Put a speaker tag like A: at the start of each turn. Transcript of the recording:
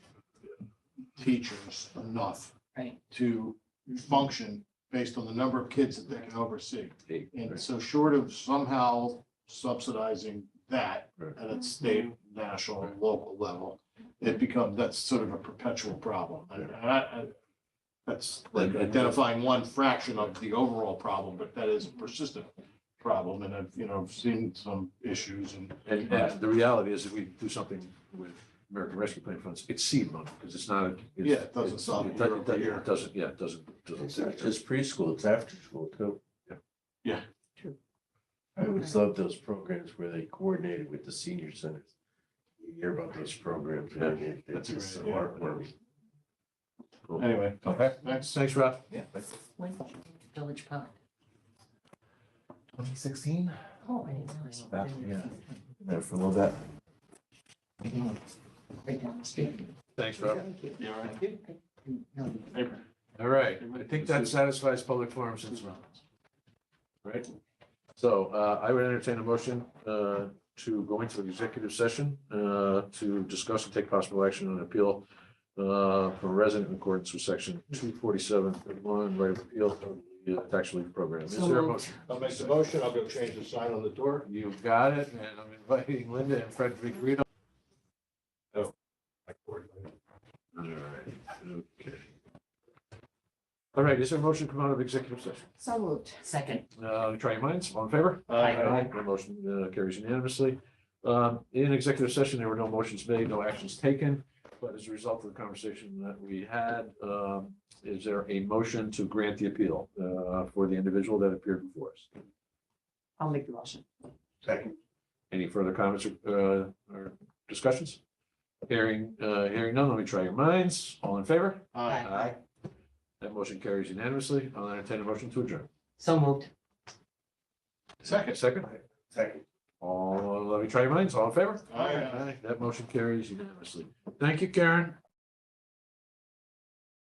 A: teachers enough
B: Right.
A: to function based on the number of kids that they can oversee.
C: Hey,
A: And so short of somehow subsidizing that
C: Right.
A: at a state, national, and local level, it becomes, that's sort of a perpetual problem. And I, I, that's like identifying one fraction of the overall problem, but that is a persistent problem. And I've, you know, I've seen some issues and
C: And and the reality is, if we do something with American Rescue Plan funds, it's seed money, because it's not. it's-
A: Yeah, it doesn't solve it
C: do-
A: year over
C: do-
A: year.
C: It doesn't, yeah, it doesn't,
D: It's not
C: doesn't.
D: just preschool, it's after school too.
C: Yeah.
A: Yeah.
D: True. I always loved those programs where they coordinated with the senior centers. You hear about those programs,
C: Yeah,
D: and it- it's
A: that's
D: just
A: right,
D: so
A: yeah.
D: heartwarming.
A: anyway,
C: Okay,
A: thanks.
C: thanks, Rob.
D: Yeah.
B: When's the Village Pond?
C: Twenty sixteen?
B: Oh, I didn't know.
C: It's about, yeah.
D: There for a little bit.
B: Right down the street.
C: Thanks, Rob.
A: You all right?
B: No,
A: Hey,
C: All right, I think that satisfies public forums and surroundings. Right? So uh, I would entertain a motion uh, to go into executive session uh, to discuss and take possible action on appeal uh, from resident in accordance with section two forty-seven thirty-one, right of appeal from the uh, tax relief program. Is there a motion?
A: I'll make the motion. I'll go change the sign on the door.
C: You got it, and I'm inviting Linda and Frederick Rito. All right, okay. All right, is there a motion to come out of executive session?
B: So moved. Second.
C: Uh, try your minds, all in favor?
B: Aye.
C: The motion uh, carries unanimously. Um, in executive session, there were no motions made, no actions taken, but as a result of the conversation that we had, um, is there a motion to grant the appeal, uh, for the individual that appeared before us?
B: I'll make the motion.
D: Second.
C: Any further comments or, uh, or discussions? Hearing, uh, hearing none, let me try your minds, all in favor?
A: Aye.
C: Aye. That motion carries unanimously. I'll entertain a motion to adjourn.
B: So moved.
A: Second.
C: Second?
D: Second.
C: All, let me try your minds, all in favor?
A: Aye.
C: That motion carries unanimously. Thank you, Karen.